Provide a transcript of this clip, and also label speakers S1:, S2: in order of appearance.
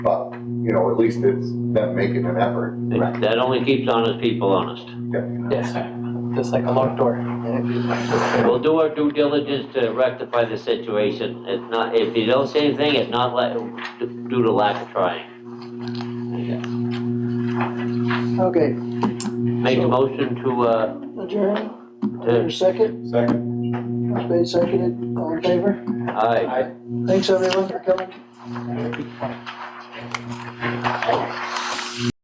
S1: But, you know, at least it's them making an effort.
S2: That only keeps honest people honest.
S3: Yes, sir. Just like a locked door.
S2: We'll do our due diligence to rectify the situation. If not, if you don't say anything, it's not like, due to lack of trying.
S4: Okay,
S2: Make a motion to, uh,
S4: adjourn,
S2: to,
S4: there's a second,
S1: Second.
S4: Motion made, seconded, all in favor?
S2: aye.
S4: Thanks everyone for coming.